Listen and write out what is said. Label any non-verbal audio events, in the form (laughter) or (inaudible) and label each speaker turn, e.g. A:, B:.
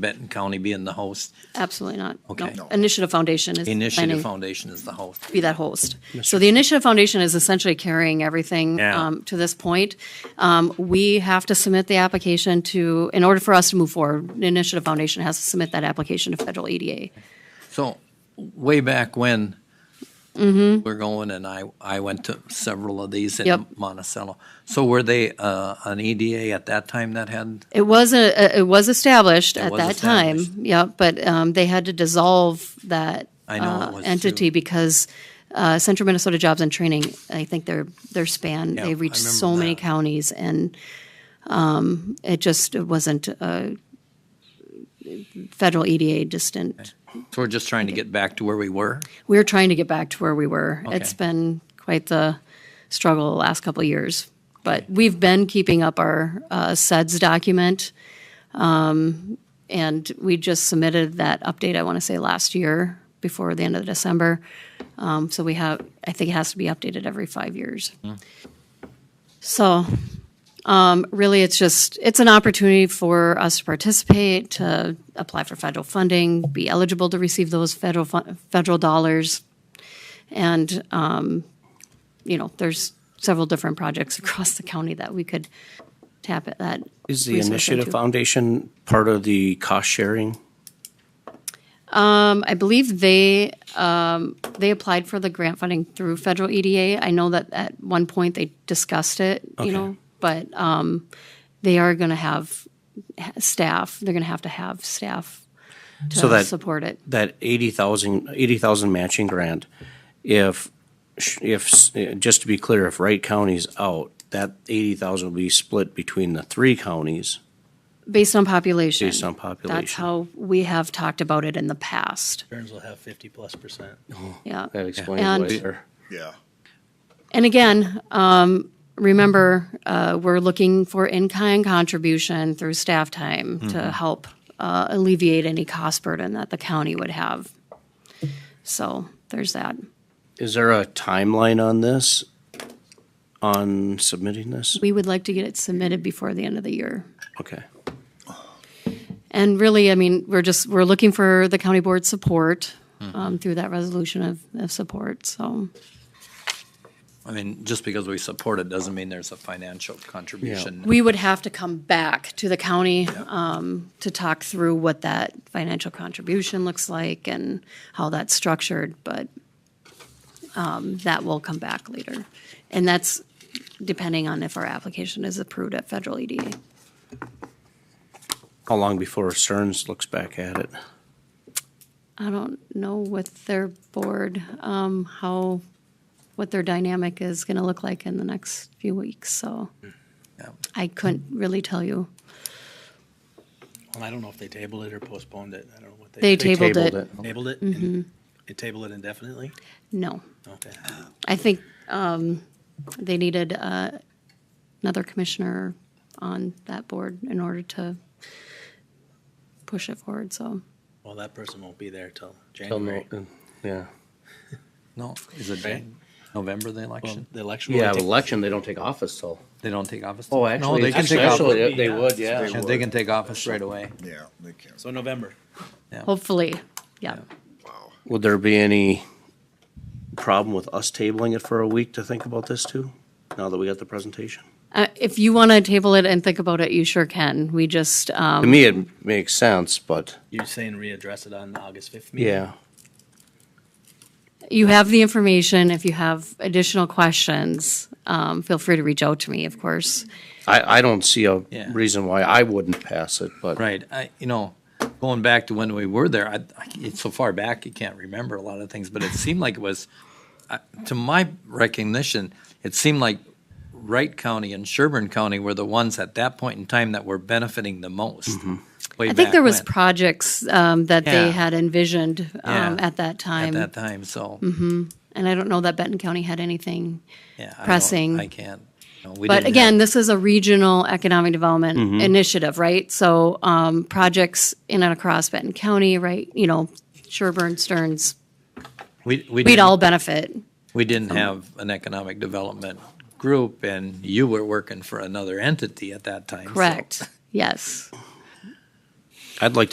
A: Benton County being the host.
B: Absolutely not. No.
A: Okay. No.
B: Initiative Foundation is
A: Initiative
B: planning
A: Foundation is the host.
B: to be that host. So the Initiative Foundation is essentially carrying everything
A: Yeah.
B: um, to this point. Um, We have to submit the application to, in order for us to move forward, the Initiative Foundation has to submit that application to federal E EDA.
A: So way back when we're going, and I, I went to several of these in
B: Yep.
A: Monticello. So were they uh, an EDA at that time that had,
B: It was a, it was established at
A: was
B: that time.
A: established.
B: Yeah, but um, they had to dissolve that
A: I know it
B: uh,
A: was too.
B: entity because uh, Central Minnesota Jobs and Training, I think their their span,
A: I
B: they reached
A: remember
B: so many
A: that.
B: counties, and um, it just it wasn't a federal EDA distant.
A: so we're just trying to get back to where we were?
B: We're trying to get back to where we were. It's
A: Okay.
B: been quite the struggle the last couple of years, but we've been keeping up our uh, SEDS document. Um, and we just submitted that update, I want to say last year before the end of December. Um, so we have, I think it has to be updated every five years. So um, really, it's just, it's an opportunity for us to participate, to apply for federal funding, be eligible to receive those federal, fu- federal dollars. And, um, you know, there's several different projects (laughs) across the county that we could tap at that.
C: Is the
B: resource
C: Initiative
B: into.
C: Foundation part of the cost sharing?
B: Um, I believe they, um, they applied for the grant funding through federal EDA. I know that at one point they discussed it, you
C: Okay.
B: know, but, um, they are gonna have ha- staff, they're gonna have to have staff
C: So
B: to
C: that-
B: support it.
C: That 80,000, 80,000 matching grant, if, sh- if, s- eh, just to be clear, if Wright County's out, that 80,000 will be split between the three counties.
B: Based on population.
C: Based on
B: That's
C: population.
B: how we have talked about it in the past,
D: Burns will have fifty plus percent.
B: yeah.
C: That explains
B: And-
C: why they're-
E: Yeah.
B: And again, um, remember, uh, we're looking for in-kind contribution through staff time to help uh, alleviate any cost burden that the county would have. So there's that.
C: Is there a timeline on this, on submitting this?
B: We would like to get it submitted before the end of the year.
C: Okay.
B: And really, I mean, we're just, we're looking for the county board support um, through that resolution of, of support, so.
A: I mean, just because we support it doesn't mean there's a financial contribution.
B: We would have to come back to the county um, to talk through what that financial contribution looks like and how that's structured, but um, that will come back later. And that's depending on if our application is approved at federal E EDA.
C: How long before Stearns looks back at it?
B: I don't know with their board, um, how, what their dynamic is going to look like in the next few weeks, so
A: Yeah.
B: I couldn't really tell you.
D: I don't know if they tabled it or postponed it. I don't know what they.
B: They tabled
C: tabled
B: it.
C: it.
D: Tabled it? and- They tabled it indefinitely?
B: No.
D: Okay.
B: I think um, they needed uh, another commissioner on that board in order to push it forward, so.
D: Well, that person won't be there till
C: Till
D: January.
C: no- Yeah.
A: No, is it Jan- November, the election?
D: Well, The election. will
C: Yeah,
D: take-
C: election, they don't take office till.
A: They don't take office?
C: Oh,
A: No,
C: actually,
A: they can take
C: actually,
A: office-
C: they- they would, yeah.
A: yeah, They can take office right away.
E: Yeah, they can.
D: So November.
B: Hopefully, yeah.
C: Would there be any problem with us tabling it for a week to think about this too, now that we got the presentation?
B: Uh, If you want to table it and think about it, you sure can. We just, um,
C: To me, it makes sense, but
D: You're saying readdress it on the August fifth meeting?
C: yeah,
B: you have the information. If you have additional questions, um, feel free to reach out to me, of course.
C: I, I don't see a
A: Yeah.
C: reason why I wouldn't pass it, but.
A: Right, I, you know, going back to when we were there, I, I, it's so far back, you can't remember a lot of things, but it seemed like it was, I- to my recognition, it seemed like Wright County and Sherburne County were the ones at that point in time that were benefiting the most. way
B: I think
A: back
B: there was
A: when,
B: projects um, that they
A: Yeah.
B: had envisioned um,
A: Yeah.
B: at that
A: At
B: time.
A: that time, so.
B: Mm-hmm. And I don't know that Benton County had anything
A: yeah, I don't-
B: pressing.
A: I can't. no, we
B: But
A: didn't Mm-hmm.
B: again,
A: have-
B: this is a regional economic development initiative, right? So um, projects in and across Benton County, right? You know, Sherburne, Stearns,
A: We, we
B: we'd
A: didn't-
B: all benefit.
A: We didn't have an economic development group, and you were working for another entity at that time. so-
B: Correct. Yes.
C: I'd like to